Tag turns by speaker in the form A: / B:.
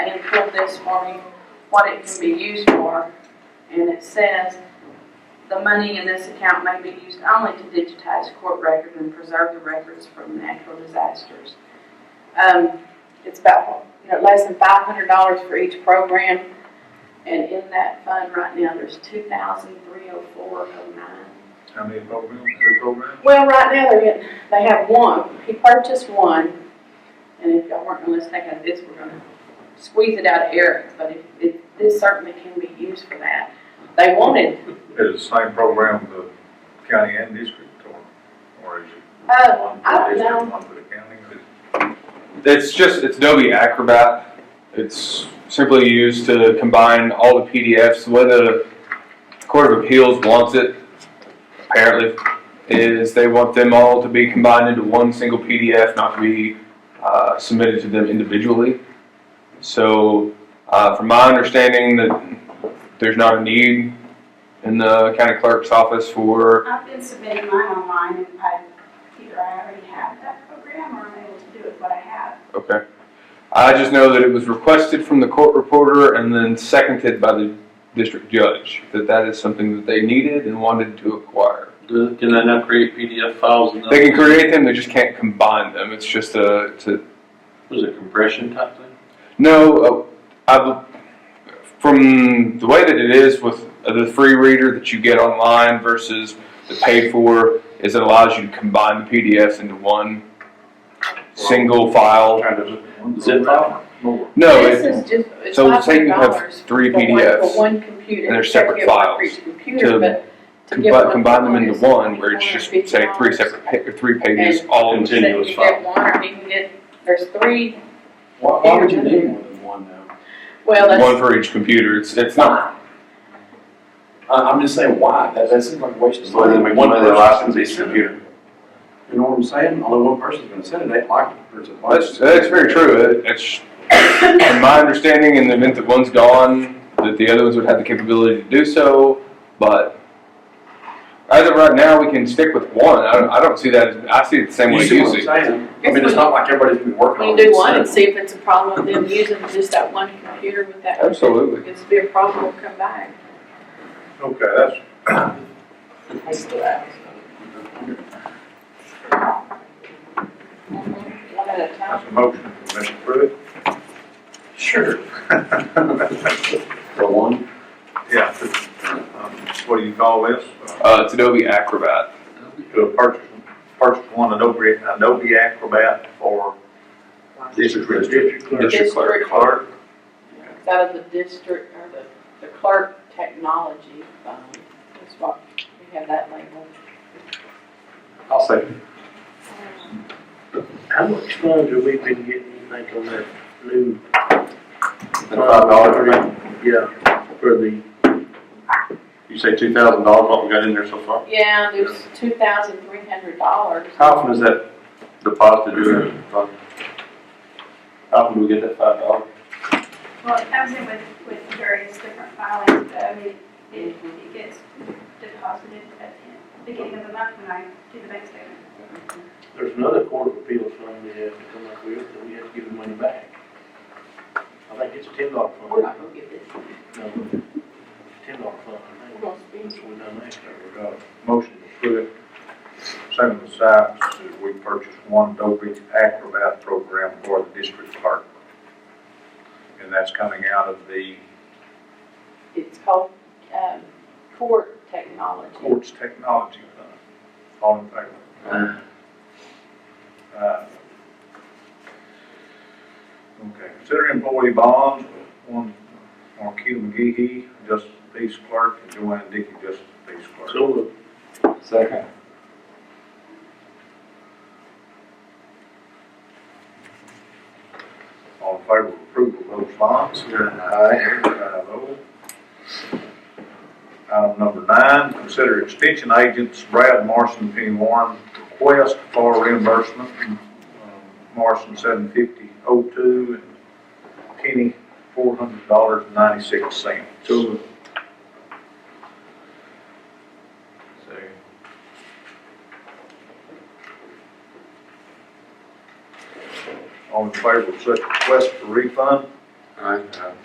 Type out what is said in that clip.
A: pulled this for me, what it can be used for. And it says, the money in this account may be used only to digitize court records and preserve the records from natural disasters. Um, it's about, you know, less than five hundred dollars for each program. And in that fund right now, there's two thousand three oh four oh nine.
B: How many programs, two programs?
A: Well, right now, they're getting, they have one, he purchased one, and if y'all weren't gonna let's take out of this, we're gonna squeeze it out of Eric, but if, if, this certainly can be used for that. They wanted,
B: Is the same program the county and district or, or is it
C: Oh,
A: uh,
B: one
A: I
B: for
A: don't know,
B: the district, one for the county?
D: It's just, it's Adobe Acrobat. It's simply used to combine all the PDFs. The way the Court of Appeals wants it, apparently, is they want them all to be combined into one single PDF, not to be uh, submitted to them individually. So, uh, from my understanding, that there's not a need in the county clerk's office for,
C: I've been submitting mine online, and I, either I already have that program, or I'm able to do it, but I have.
D: okay. I just know that it was requested from the court reporter and then seconded by the district judge, that that is something that they needed and wanted to acquire.
E: Do- Can they now create PDF files and
D: They can create them, they just can't combine them. It's just uh, a, it's a
E: Was it compression type thing?
D: No, uh, I, from the way that it is with uh, the free reader that you get online versus the paid for, is it allows you to combine the PDFs into one single file.
B: Kind of.
E: Zip file?
B: More.
D: No,
A: this
D: it,
A: is just, it's
D: so
A: five
D: say
A: hundred
D: you have
A: dollars.
D: three
A: For
D: PDFs
A: one computer.
D: and they're
A: you have to
D: separate
A: get one for
D: files
A: each computer,
D: to
A: but to get
D: combine,
A: one
D: combine them
A: phone
D: into
A: is
D: one where it's just say three
A: $250.
D: separate, pa- or three pages
A: And-
D: all
A: So
D: into.
A: you
E: Continuous
A: can
E: file.
A: get one, or you can get, there's three,
F: Why, why would you need more than one though?
A: well, that's.
D: One for each computer. It's, it's not,
F: I, I'm just saying why, that, that seems like a waste of
G: So
F: time.
G: then we can
F: One
G: put the
F: person-
G: license each computer.
F: You know what I'm saying? Only one person's gonna send it, they like it, there's a bunch.
D: that's, that's very true. It- It's, from my understanding, in the event that one's gone, that the other ones would have the capability to do so, but as of right now, we can stick with one. I don't, I don't see that, as- I see it the same
F: You
D: way
F: see
D: you
F: what I'm
D: see.
F: saying? I
A: Guess
F: mean, it's
A: when-
F: not like everybody's been working
A: We
F: on it.
A: do one and see if it's a problem with them using just that one computer with that.
D: Absolutely.
A: It's be a problem, we'll come back.
B: Okay, that's,
A: One at a time.
B: that's a motion from Mr. Pruitt. Sure.
F: For one?
B: Yeah. Um, What do you call this? Uh,
D: Uh, it's Adobe Acrobat.
B: To purchase, purchase one Adobe, Adobe Acrobat for district, district clerk.
D: District clerk.
B: Clerk.
A: It's out of the district, or the, the clerk technology fund, that's what, we have that label.
F: I'll say.
H: How much fund have we been getting, you think, on that new?
G: Five dollars,
H: Yeah, for the,
G: you say two thousand dollars, what we got in there so far?
A: Yeah, there's two thousand three hundred dollars.
G: How often is that deposited in? How often do we get that five dollars?
C: Well, it comes in with, with various different filings, but I mean, it, it gets deposited at the beginning of the month when I do the bank statement.
H: there's another court of appeals fund we have to come up with, that we have to give the money back. I think it's a ten dollar fund.
A: We're not gonna get this,
H: No, ten dollar fund, I
A: we're
H: think.
A: gonna spend.
H: That's what we done last year.
B: We got a Motion to put, same as Sykes, that we purchase one Adobe Acrobat program for the district clerk. And that's coming out of the
A: It's called, um, court technology.
B: courts technology fund. All in favor? Uh, Okay, consider employee bonds, one, Marquita McGee, Justice Peace Clerk, and Joanne Dickey, Justice Peace Clerk.
H: So, uh,
F: Second.
B: All in favor of approval of those bonds? Aye. Five oh. Item number nine, consider extension agents Brad Morrison, Penny Warren, request for reimbursement. um, Morrison seven fifty oh two and Kenny four hundred dollars and ninety-six cents. All in favor of such request for refund? All right, uh,